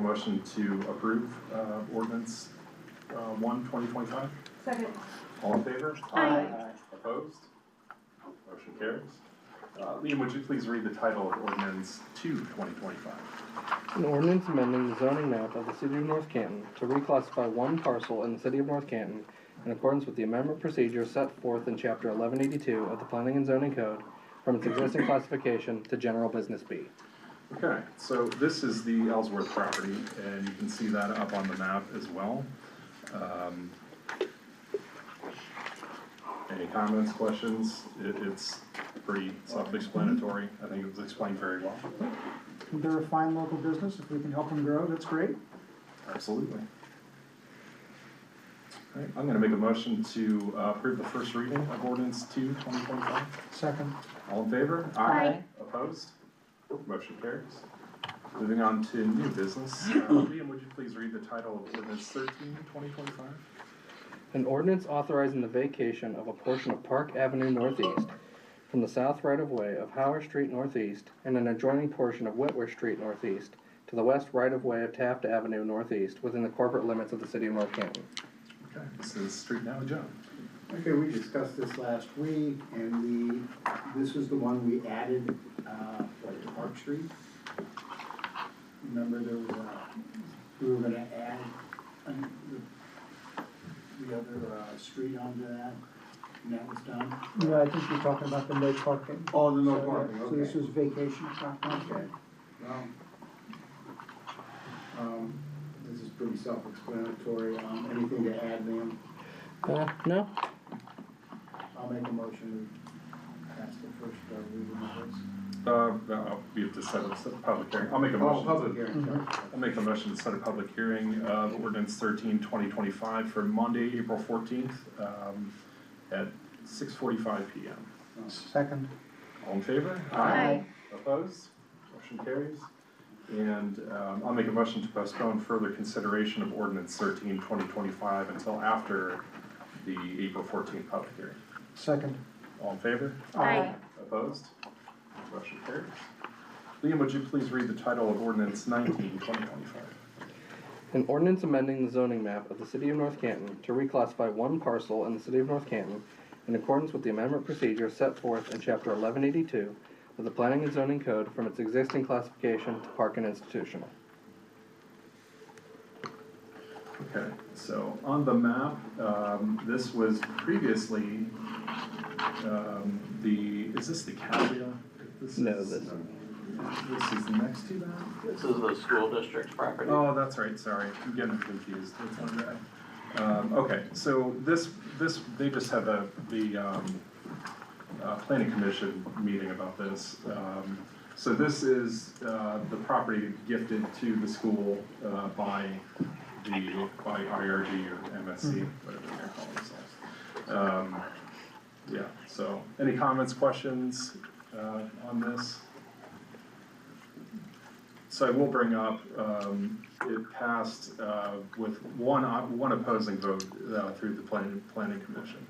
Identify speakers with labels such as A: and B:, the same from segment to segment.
A: motion to approve uh, ordinance uh, one, twenty twenty-five?
B: Second.
A: All in favor?
B: Aye.
A: Opposed? Motion carries. Uh, Liam, would you please read the title of ordinance two, twenty twenty-five?
C: An ordinance amending the zoning map of the city of North Canton to reclassify one parcel in the city of North Canton in accordance with the amendment procedure set forth in chapter eleven eighty-two of the planning and zoning code from its existing classification to general business B.
A: Okay, so this is the Ellsworth property, and you can see that up on the map as well. Um, Any comments, questions? It, it's pretty self-explanatory. I think it was explained very well.
D: They're a fine local business, if we can help them grow, that's great.
A: Absolutely. All right, I'm gonna make a motion to uh, approve the first reading of ordinance two, twenty twenty-five.
D: Second,
A: All in favor?
B: Aye.
A: Opposed? Motion carries. Moving on to new business, Uh, Liam, would you please read the title of ordinance thirteen, twenty twenty-five?
C: An ordinance authorizing the vacation of a portion of Park Avenue Northeast from the south right-of-way of Howard Street Northeast and an adjoining portion of Whitworth Street Northeast to the west right-of-way of Taft Avenue Northeast within the corporate limits of the city of North Canton.
A: Okay, this is Street Now Joe.
E: Okay, we discussed this last week, and the, this is the one we added, uh, like to Park Street. Remember there was, uh, we were gonna add um, the, the other, uh, street onto that, and that was done?
D: yeah, I think you're talking about the no parking.
E: Oh, the no
D: So,
E: parking,
D: So this
E: okay.
D: is vacation parking.
E: Okay, well, um, this is pretty self-explanatory, um, anything to add, ma'am?
C: Uh, no?
E: I'll make a motion, to pass the first, uh, reading of this.
A: Uh, no, we have to set up set a public hearing. I'll make a
E: Oh,
A: motion.
E: public
A: to-
E: hearing, sorry.
A: I'll make a motion to set a public hearing of ordinance thirteen, twenty twenty-five for Monday, April fourteenth, um, at six forty-five P M.
D: Second,
A: All in favor?
B: Aye.
A: Opposed? Motion carries. And um, I'll make a motion to postpone further consideration of ordinance 13, 2025 until after the April 14th public hearing.
D: second.
A: All in favor?
B: Aye.
A: Opposed? Motion carries. Liam, would you please read the title of ordinance 19, 2025?
C: An ordinance amending the zoning map of the city of North Canton to reclassify one parcel in the city of North Canton in accordance with the amendment procedure set forth in chapter eleven eighty-two of the planning and zoning code from its existing classification to park and institutional.
A: Okay, so on the map, um, this was previously um, the, is this the Cavia? This
C: No,
A: is-
C: this-
A: This is next to that?
F: This is the school district's property.
A: Oh, that's right, sorry, I'm getting confused, that's my bad. Um, okay, so this, this, they just had the, the, um, uh, planning commission meeting about this. Um, so this is, uh, the property gifted to the school, uh, by the, by IRG or MSC, whatever they're calling themselves. Um, yeah, so, any comments, questions, uh, on this? So I will bring up, um, it passed, uh, with one, op- one opposing vote, uh, through the planning, planning commission.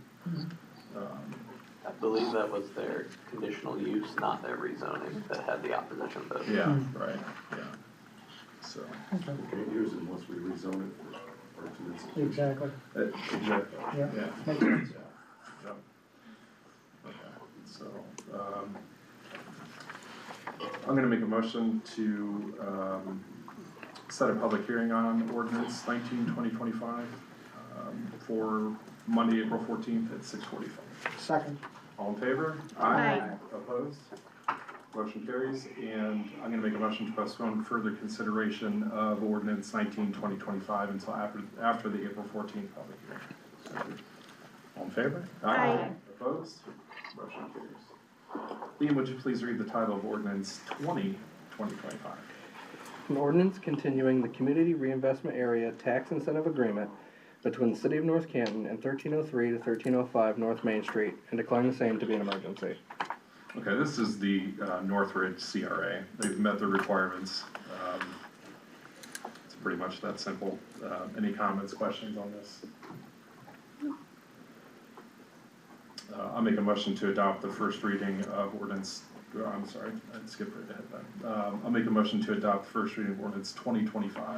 A: Um,
F: I believe that was their conditional use, not their rezoning, that had the opposition vote.
A: Yeah, right, yeah. So,
G: Eight years unless we rezone it for, or to this.
D: Exactly,
A: uh, exactly,
D: Yeah.
A: yeah.
D: makes sense.
A: Yeah. Okay, so, um, I'm gonna make a motion to, um, set a public hearing on ordinance nineteen twenty twenty-five, um, for Monday, April fourteenth at six forty-five.
D: Second,
A: All in favor?
B: Aye.
A: Opposed? Motion carries, and I'm gonna make a motion to postpone further consideration of ordinance nineteen twenty twenty-five until after, after the April fourteenth public hearing. All in favor?
B: Aye.
A: Opposed? Motion carries. Liam, would you please read the title of ordinance 20, 2025?
C: An ordinance continuing the community reinvestment area tax incentive agreement between the city of North Canton and thirteen oh three to thirteen oh five North Main Street and declaring the same to be an emergency.
A: Okay, this is the uh, Northridge CRA. They've met the requirements. Um, It's pretty much that simple. Uh, Any comments, questions on this? Uh, I'll make a motion to adopt the first reading of ordinance, oh, I'm sorry, I skipped right ahead then. Um, I'll make a motion to adopt first reading of ordinance 2025